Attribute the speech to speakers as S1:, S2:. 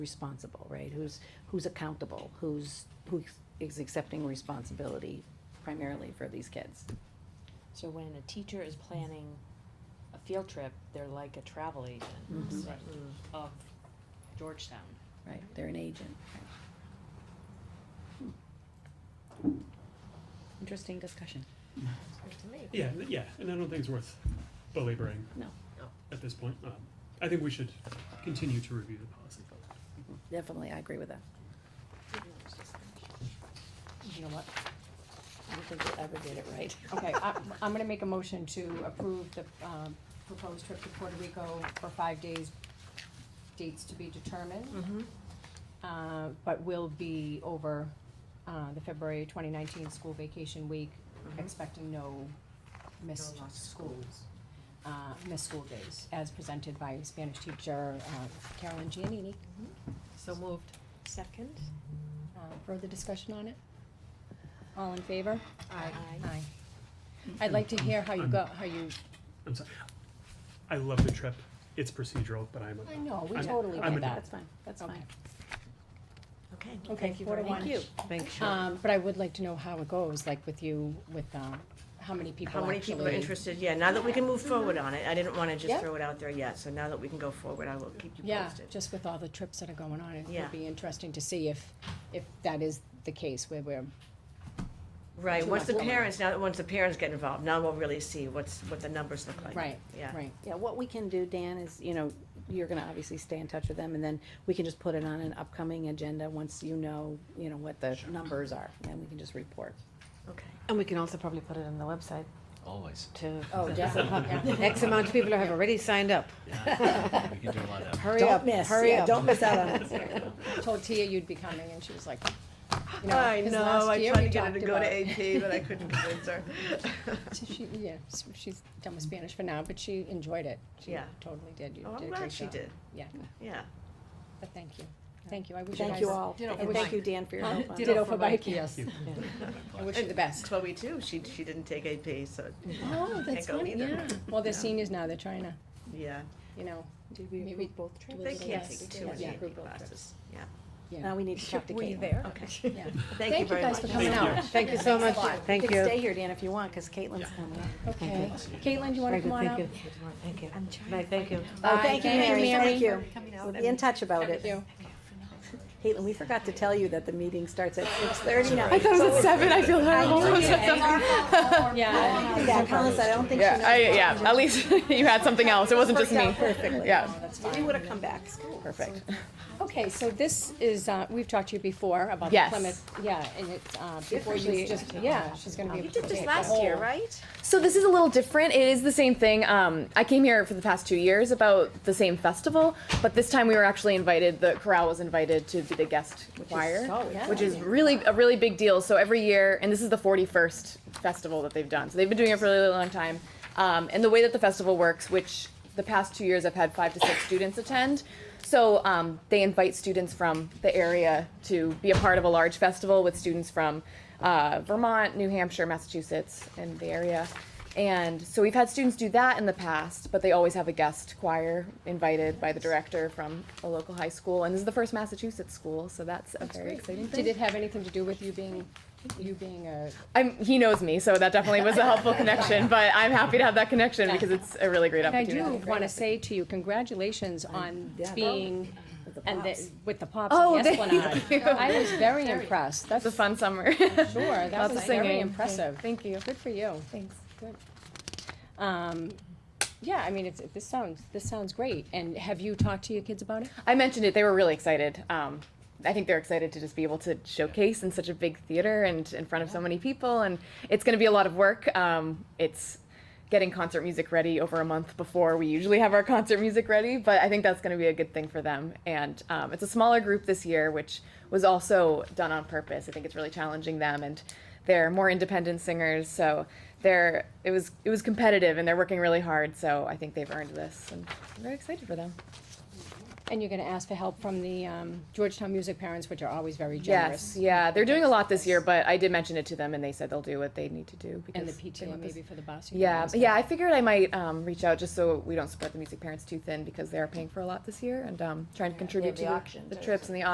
S1: responsible, right? Who's, who's accountable, who's, who is accepting responsibility primarily for these kids.
S2: So when a teacher is planning a field trip, they're like a travel agent
S1: Mhm.
S3: Right.
S2: of Georgetown.
S1: Right, they're an agent. right. Hmm. Interesting discussion.
S3: Yeah, n- yeah, and I don't think it's worth belaboring.
S1: No.
S4: No.
S3: At this point, um, I think we should continue to review the policy.
S1: Definitely, I agree with that.
S5: You know what?
S1: I don't think we ever did it right.
S5: Okay, I, I'm gonna make a motion to approve the, um, proposed trip to Puerto Rico for five days, dates to be determined. Uh, but will be over, uh, the February twenty nineteen school vacation week, expecting no missed
S4: Mm-hmm. No lost
S5: schools. Uh, missed school days, as presented by Spanish teacher, uh, Carolyn Giannini.
S4: So moved.
S2: Second?
S5: Uh, further discussion on it? All in favor? Aye. I'd like to hear how you go, how you
S3: I'm sorry. I love the trip. It's procedural, but I'm,
S5: I
S3: a-
S5: know, we
S3: I'm-
S5: totally
S3: I'm
S5: get
S3: an-
S5: that.
S1: That's fine, that's fine.
S4: Okay.
S5: Okay, four to
S1: Thank
S5: one.
S1: you.
S4: Thank you.
S5: Um, but I would like to know how it goes, like with you, with, um, how many people
S4: How
S5: actually.
S4: many people are interested? Yeah, now that we can move forward on it, I didn't wanna
S5: Yeah.
S4: just throw it out there yet, so now that we can go forward, I will keep you
S5: Yeah,
S4: posted.
S5: just with all the trips that are going on, it
S4: Yeah.
S5: would be interesting to see if, if that is the case where we're,
S4: Right,
S5: Too
S4: once
S5: much
S4: the
S5: woman.
S4: parents, now, once the parents get involved, now we'll really see what's, what the numbers look like.
S5: right,
S4: Yeah.
S5: right.
S1: Yeah, what we can do, Dan, is, you know, you're gonna obviously stay in touch with them, and then we can just put it on an upcoming agenda once you know, you know, what the numbers are, and we can just report.
S4: Okay.
S6: And we can also probably put it on the website
S7: Always.
S6: to
S5: Oh, definitely, yeah.
S6: X amount of people have already signed up.
S7: Yeah. We can do a lot of.
S6: Hurry
S1: Don't
S6: up,
S1: miss,
S6: hurry
S1: yeah,
S6: up.
S1: don't miss out on it.
S5: Told Tia you'd be coming and she was like, you know,
S4: I
S5: 'cause
S4: know,
S5: last
S4: I
S5: year
S4: tried
S5: we
S4: to get her to
S5: talked
S4: go to
S5: about-
S4: AP, but I couldn't convince her.
S5: So she, yeah, s- she's done with Spanish for now, but she enjoyed it. She
S4: Yeah.
S5: Totally did, you did
S4: Oh, I'm
S5: a great
S4: glad she
S5: job.
S4: did,
S5: Yeah,
S4: yeah.
S5: but thank you, thank you, I wish you guys.
S1: Thank you all,
S4: Ditto for
S1: and thank
S4: Mike.
S1: you, Dan, for your help on
S5: Ditto
S1: it.
S5: for Mike, yes. I wish you the best.
S4: Chloe too, she, she didn't take AP, so,
S5: Oh,
S4: Oh, that's
S5: that's
S4: go funny,
S5: funny,
S4: either.
S5: yeah.
S4: yeah.
S5: Well, they're
S4: Yeah.
S5: seniors now, they're trying to,
S4: yeah,
S5: you know,
S6: Did
S5: we Maybe- approve
S6: both
S5: trips?
S4: they
S5: Yes,
S4: can't
S5: we
S4: take
S5: did.
S4: too much
S5: Yeah.
S4: AP classes, yeah,
S1: Now we need to talk to Caitlin.
S4: okay.
S5: yeah.
S4: Thank you very much.
S5: guys for coming
S3: Thank you.
S5: out.
S6: Thank you so much, thank
S1: can stay
S6: you.
S1: here, Dan, if you want, because Caitlin's coming up.
S5: Okay. Caitlin, do you wanna come on out?
S6: Thank you. Bye, thank you.
S1: Oh,
S5: Bye.
S1: thank you,
S5: Thank you,
S1: Mary,
S5: Mary.
S1: thank you. We'll be in touch about
S5: Thank
S1: it.
S5: you.
S1: Caitlin, we forgot to tell you that the meeting starts at six thirty now.
S6: it was at seven, I feel
S5: Yeah.
S1: Yeah, Colin said, I don't think she
S8: Yeah, I,
S1: knows.
S8: yeah. At least you had something else. It wasn't just me.
S1: Perfectly.
S8: Yeah,
S1: We would have come back.
S8: perfect.
S5: Okay, so this is, uh, we've talked to you before about the
S8: Yes.
S5: Plymouth, yeah, and it's, uh, before you just, yeah, she's gonna be.
S4: You
S5: able
S4: did
S5: to
S4: this
S5: take the
S4: last year,
S5: whole-
S4: right?
S8: So this is a little different. It is the same thing. Um, I came here for the past two years about the same festival, but this time we were actually invited. The chorale was invited to be the guest choir, which is really a really big deal. So every year, and this is the 41st festival that they've done. So they've been doing it for a really long time. Um, and the way that the festival works, which the past two years I've had five to six students attend. So um, they invite students from the area to be a part of a large festival with students from uh, Vermont, New Hampshire, Massachusetts, and the area. And so we've had students do that in the past, but they always have a guest choir invited by the director from a local high school. And this is the first Massachusetts school, so that's a very exciting thing.
S5: Did it have anything to do with you being, you being a,
S8: I'm, he knows me, so that definitely was a helpful connection. But I'm happy to have that connection
S5: Yeah.
S8: because it's a really great
S5: And I
S8: opportunity.
S5: do wanna say to you, congratulations on
S1: yeah.
S5: being, and the, with the pops
S8: Oh,
S5: and the
S8: thank
S5: Esplanade. I was very impressed, that's.
S8: It's a fun summer.
S5: Sure, that
S8: Lots
S5: was
S8: of
S5: very
S8: singing.
S5: impressive.
S8: Thank you.
S5: Good for you.
S8: Thanks.
S5: Good. Um, yeah, I mean, it's, this sounds, this sounds great. And have you talked to your kids about it?
S8: I mentioned it. They were really excited. Um, I think they're excited to just be able to showcase in such a big theater and in front of so many people. And it's going to be a lot of work. Um, it's getting concert music ready over a month before we usually have our concert music ready. But I think that's going to be a good thing for them. And um, it's a smaller group this year, which was also done on purpose. I think it's really challenging them, and they're more independent singers. So they're it was it was competitive, and they're working really hard. So I think they've earned this, and I'm very excited for them.
S5: And you're gonna ask for help from the um, Georgetown Music Parents, which are always very
S8: Yes,
S5: generous.
S8: yeah, they're doing a lot this year, but I did mention it to them and they said they'll do what they need to do because.
S5: And the
S8: they
S5: PTA
S8: want this-
S5: maybe for the bus. you can
S8: Yeah,
S5: ask
S8: yeah,
S5: them.
S8: I figured I might, um, reach out just so we don't support the music parents too thin because they are paying for a lot this year and, um, trying to
S2: they
S8: contribute
S2: have
S8: to
S2: the
S8: the-
S2: auction
S8: the
S2: too,
S8: trips
S2: so-
S8: and the